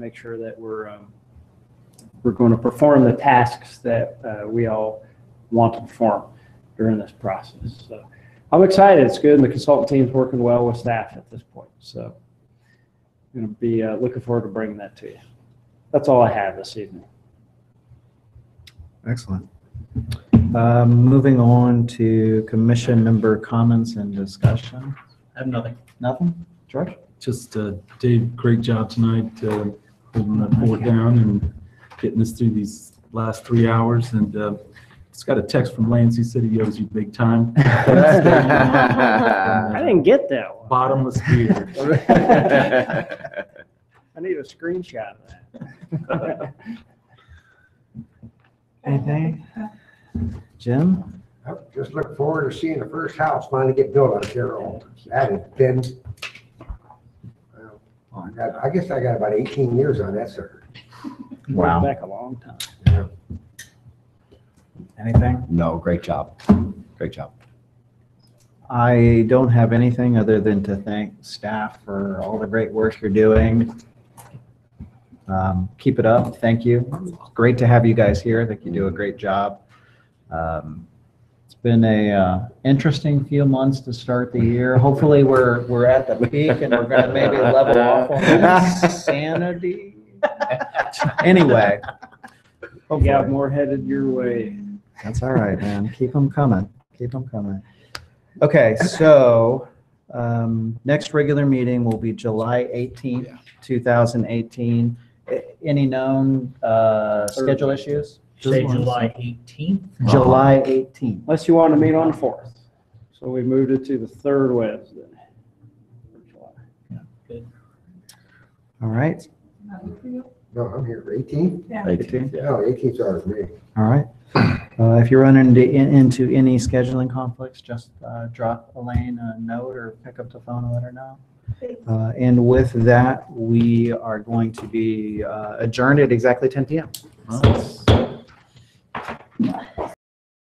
make sure that we're, um, we're going to perform the tasks that uh, we all want to perform during this process. So I'm excited. It's good, and the consultant team's working well with staff at this point. So I'm going to be uh, looking forward to bringing that to you. That's all I have this evening. Excellent. Um, Moving on to commission member comments and discussion. I have nothing. Nothing? George? Just uh, Dave, great job tonight, uh, holding that board down and getting us through these last three hours. And uh, just got a text from Lance, he said he owes you big time. I didn't get that one. Bottomless beer. I need a screenshot of that. Anything? Jim? Yep, Just look forward to seeing the first house finally get built out here on, that has been. well, I got- I guess I got about eighteen years on that sucker. Went Back a long time. Anything? No, great job. Great job. I don't have anything other than to thank staff for all the great work you're doing. Um, Keep it up. Thank you. Great to have you guys here. I think you do a great job. Um, It's been a uh, interesting few months to start the year. Hopefully, we're, we're at the peak and we're going to maybe level off on the insanity. Anyway. You got more headed your way. That's all right, man. Keep them coming. Keep them coming. Okay, so um, next regular meeting will be July 18th, Yeah. 2018. A- Any known uh, schedule issues? Say Just- July eighteenth. July 18th. Unless you want to meet on the fourth. So we moved it to the third Wednesday. All right, No, I'm here for eighteen, no, eighteen's ours, me. all right. Uh, If you're running into- in- into any scheduling conflicts, just uh, drop Elaine a note or pick up the phone and let her know. Uh, And with that, we are going to be uh, adjourned at exactly 10 PM. Nice.